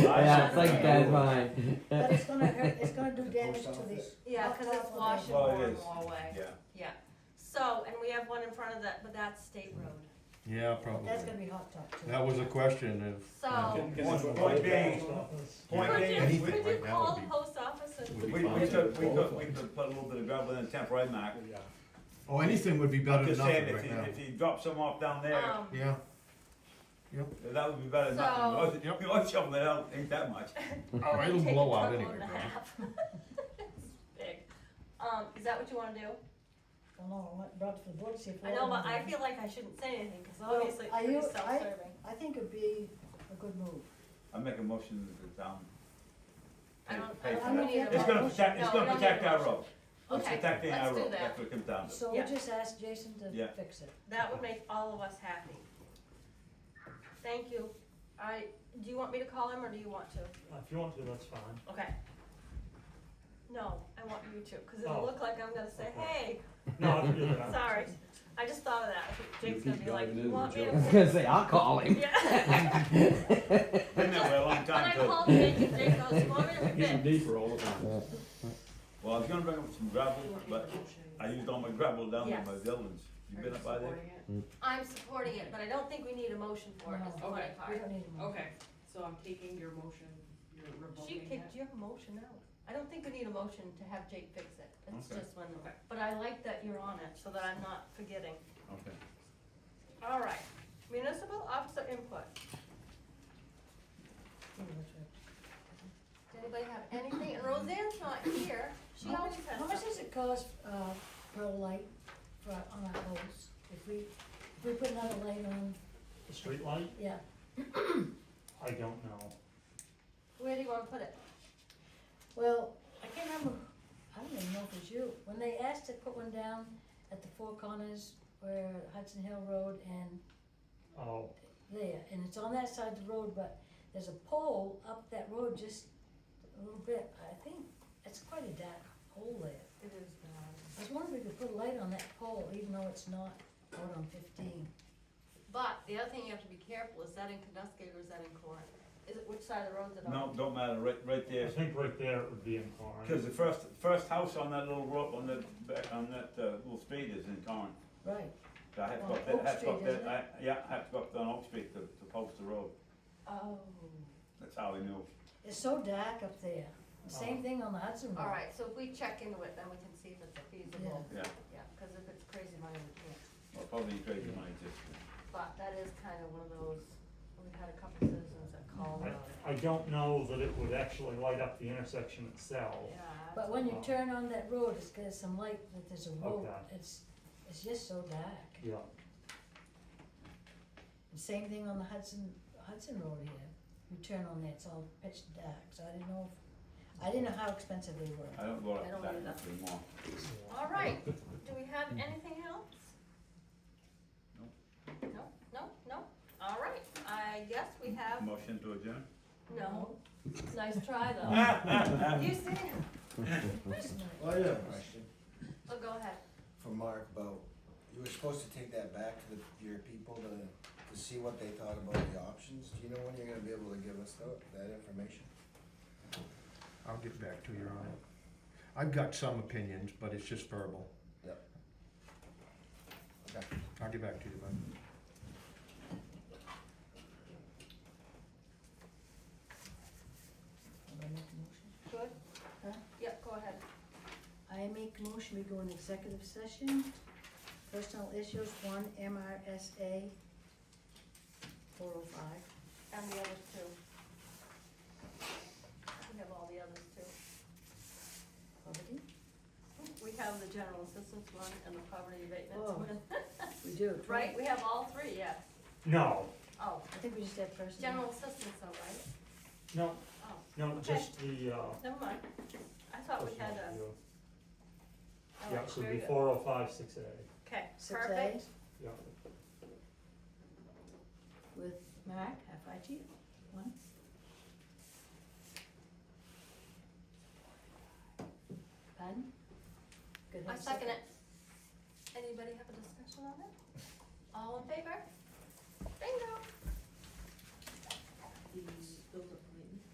yeah, it's like that's mine. But it's gonna hurt, it's gonna do damage to the, Yeah, cause it's wash and Well, it more and is. more away, Yeah, yeah. So, and we have one in front of that, but that's state road. Yeah, probably. that's gonna be hot top too. That was a question of. So, Point being- point could being, you, we, could you right now call would the be- post office and, we, we could, we could, we could put a little bit of gravel in the temporary mark. Oh, anything would be better than Just saying, nothing if right he, if now. he drops some off down there, um, Yeah, that would be better than So- nothing. You want something that don't think that much. Oh, they it'll take a blow out truckload anyway, and a bro. half. It's Big. Um, is that what you wanna do? I don't know, I brought to the board, see if. I know, but I feel like I shouldn't say anything, cause Well, obviously it's are pretty you- I- self-serving. I think it'd be a good move. I make a motion that the town. I don't, I pay don't for think we that. need a It's gonna vote. protect, it's No, gonna we don't need a protect our motion. road. It's Okay, protecting let's our do road, that. that's what it comes down to. So we Yeah. just ask Jason to Yeah. fix it. that would make all of us happy. Thank you. I, do you want me to call him or do you want to? If you want to, that's fine. Okay. No, I want you to, cause Oh. it'll look like I'm gonna say, hey, No, I can do that. sorry. I just thought of that. I think Jake's gonna be like, you want me I was to? gonna say, I'll call him. Yeah. Been that way a long When I time too. called Jake, Jake goes, you want me to fix? Well, I was gonna bring up some gravel, but I used all my gravel down in my Yes. buildings. You been up by there? I'm supporting it, but I don't think we need a motion for it, is the funny Okay. We part. don't need a Mm-hmm. move. Okay, so I'm taking your motion, you're She revoking it. kicked your motion out. I don't think we need a motion to have Jake fix it. It's Okay. just one, but I like that you're on it, so that I'm not forgetting. Okay. All right, municipal officer input. Yeah, that's right. Does anybody have anything? And Roseanne's not here. She How always much, has how much something. does it cost, uh, per light for, on our poles? If we, if we put another light on, The street light, yeah, I don't know. Where do you wanna put it? well, I can't remember, I don't even know if it was you. When they asked to put one down at the Four Corners where Hudson Hill Road and Oh, there, and it's on that side of the road, but there's a pole up that road just a little bit. I think it's quite a dark hole there. It is not. I was wondering if we could put a light on that pole, even though it's not out on fifteen. But the other thing you have to be careful, is that in Knuskig or is that in Corin? Is it, which side of the road is it on? No, don't matter, right, right I there. think right there it would be inclined. Cause the first, first house on that little road, on that, back- on that, uh, little street is in Torrance. Right. So I had to go On up that, I had to go Oak up Street, that, I, yeah, I had to go up on Oak Street to, to post the road. Oh. That's how I knew. It's so dark up there. Same thing on the Hudson Road. All right, so if we check into it, then we can see if it's feasible. Yeah. Yeah, cause if it's crazy money, we can't. Well, probably crazy when I just. But that is kinda one of those, we've had a couple citizens that called about it. I, I don't know that it would actually light up the intersection itself. Yeah. But when you turn on that road, it's got some light, but there's a road, Okay. it's, it's just so dark. Yeah, And Same thing on the Hudson, Hudson Road here. You turn on there, it's all pitch dark, so I didn't know, if- I didn't know how expensive they were. I don't go I don't up either. that anymore. All right, do we have anything else? No, no, no, all right, I guess we have, Motion to adjourn? no, nice try Ah. though. You see, Well, I have a question oh, go ahead, for Mark about, you were supposed to take that back to the, your people to, to see what they thought about the options. Do you know when you're gonna be able to give us that, that information? I'll get back to you on it. I've got some opinions, but it's just verbal. Yep. Okay. I'll get back to you, bud. Am I making a motion? good? Huh? Yep, go ahead. I make a motion, we go in executive session, personal issues, one MRSA four oh five. And the others too. We have all the others too. Poverty? We have the general assistance one and the poverty abatements Oh. one. We do. Right, we have all three, yes. no, Oh, I think we just have personal. general assistance though, right? no, Oh, no, Okay. just the, uh. never mind. I thought we had a, personal view. oh, Yeah, so very it'd good. be four oh five, six A, Okay, Six A. perfect. yeah. With Mark, FIG, one. Pardon? Good. I second it. Anybody have a discussion on it? All in favor?